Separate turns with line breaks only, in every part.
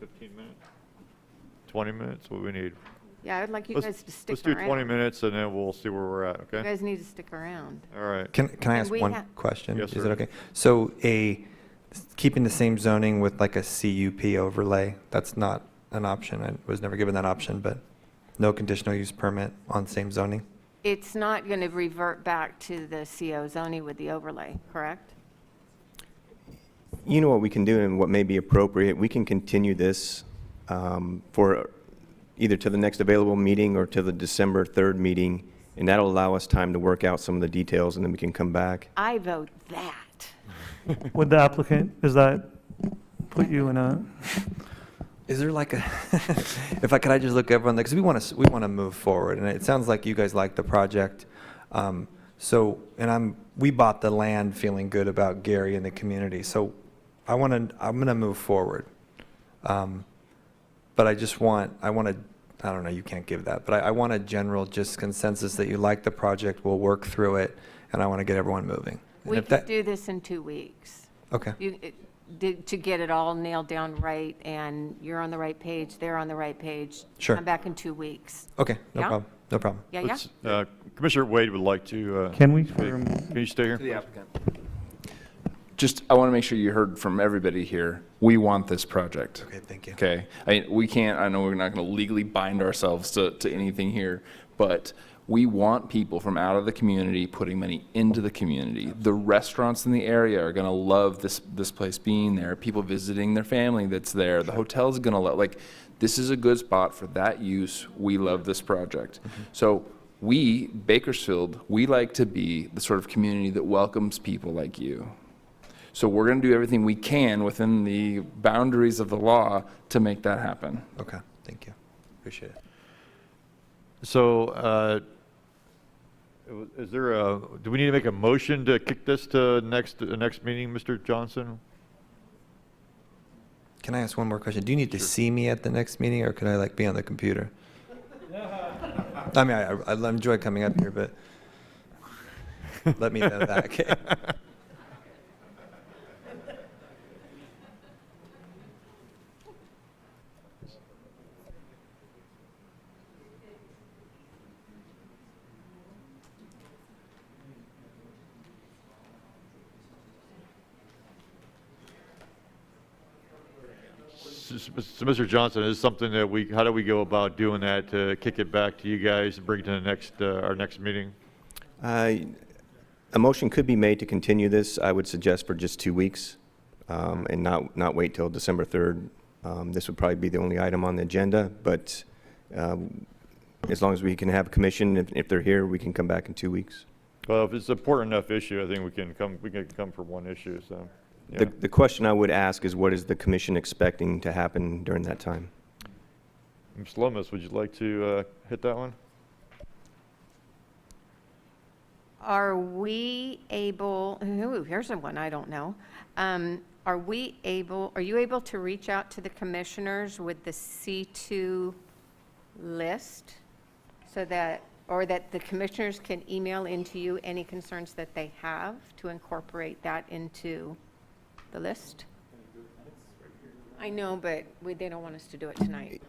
15 minutes? 20 minutes, what we need.
Yeah, I would like you
Let's-
guys to stick
Let's
around.
do 20 minutes and then we'll see where we're at,
You
okay?
guys need to stick around.
All right.
Can, can I
And
ask
we
one
ha-
question?
Yes,
Is
sir.
it okay? So a, keeping the same zoning with like a CUP overlay, that's not an option. I was never given that option, but no conditional use permit on same zoning?
It's not going to revert back to the CO zoning with the overlay, correct?
You know what we can do and what may be appropriate, we can continue this um, for either to the next available meeting or to the December 3rd meeting, and that'll allow us time to work out some of the details, and then we can come back.
I vote that.
With the applicant, does that put you in a,
Is there like a, if I, could I just look everyone, because we want to, we want to move forward, and it sounds like you guys like the project. Um, So, and I'm, we bought the land feeling good about Gary and the community, so I want to, I'm going to move forward. Um, But I just want, I want to, I don't know, you can't give that, but I, I want a general just consensus that you like the project, we'll work through it, and I want to get everyone moving. And
We
if that-
could do this in two weeks.
Okay,
You, it- to to get it all nailed down right, and you're on the right page, they're on the right page.
Sure.
Come back in two weeks.
okay, no
Yeah?
problem, no problem.
Yeah, yeah?
Let's- uh, Commissioner Wade would like to, uh,
can we?
speak. Can you stay here?
Just, I want to make sure you heard from everybody here, we want this project.
Okay, thank you.
Okay, I, we can't, I know we're not going to legally bind ourselves to, to anything here, but we want people from out of the community putting money into the community. The restaurants in the area are going to love this, this place being there, people visiting their family that's there, the hotel's going to love, like, this is a good spot for that use, we love this project. So we, Bakersfield, we like to be the sort of community that welcomes people like you. So we're going to do everything we can within the boundaries of the law to make that happen.
Okay, thank you, appreciate it.
So, uh, is there a, do we need to make a motion to kick this to next, uh, next meeting, Mr. Johnson?
Can I ask one more question? Do you need to see me at the next meeting, or could I like be on the computer? I mean, I, I I enjoy coming up here, but let me know that. Okay.
So, so, Mr. Johnson, is something that we, how do we go about doing that to kick it back to you guys and bring it to the next, uh, our next meeting?
Uh, A motion could be made to continue this, I would suggest for just two weeks, um, and not, not wait till December 3rd. Um, This would probably be the only item on the agenda, but um, as long as we can have commission, if, if they're here, we can come back in two weeks.
Well, if it's an important enough issue, I think we can come, we can come for one issue, so.
The, the question I would ask is what is the commission expecting to happen during that time?
Ms. Lomas, would you like to uh, hit that one?
Are we able, ooh, here's a one I don't know. Um, Are we able, are you able to reach out to the commissioners with the C2 list? So that, or that the commissioners can email into you any concerns that they have to incorporate that into the list? I know, but we- they don't want us to do it tonight.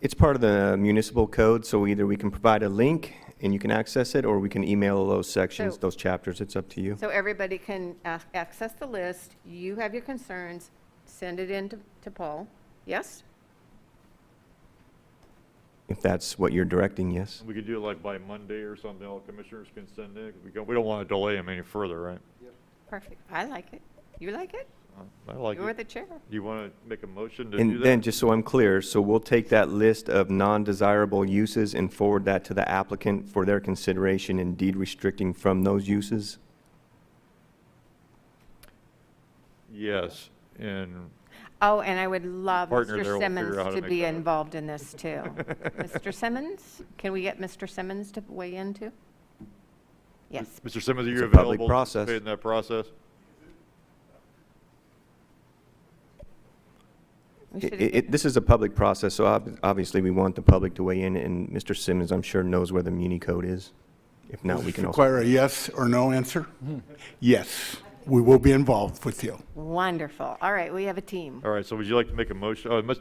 It's part of the municipal code, so either we can provide a link and you can access it, or we can email those sections,
So-
those chapters, it's up to you.
So everybody can ac- access the list, you have your concerns, send it in to to Paul, yes?
If that's what you're directing, yes.
We could do it like by Monday or something, all commissioners can send in, we don't, we don't want to delay them any further, right?
Perfect, I like it. You like it?
I like
You're
it.
the chair.
You want to make a motion to do
And then,
that?
just so I'm clear, so we'll take that list of non-desirable uses and forward that to the applicant for their consideration in deed restricting from those uses?
Yes, and
Oh, and I would love
Partner there
Mr.
will figure out how
Simmons
to
to
make
be
that.
involved in this too. Mr. Simmons, can we get Mr. Simmons to weigh in too? Yes,
Mr. Simmons, are
It's
you
a public
available to
process.
participate in that process?
we
It-
should have
it- This is a public process, so ob- obviously we want the public to weigh in, and Mr. Simmons, I'm sure, knows where the muni code is. If not,
Does
we
this
can also. Hmm.
Require a yes or no answer? Yes, we will be involved with you.
Wonderful, all right, we have a team.
All right, so would you like to make a motion, uh, Mr.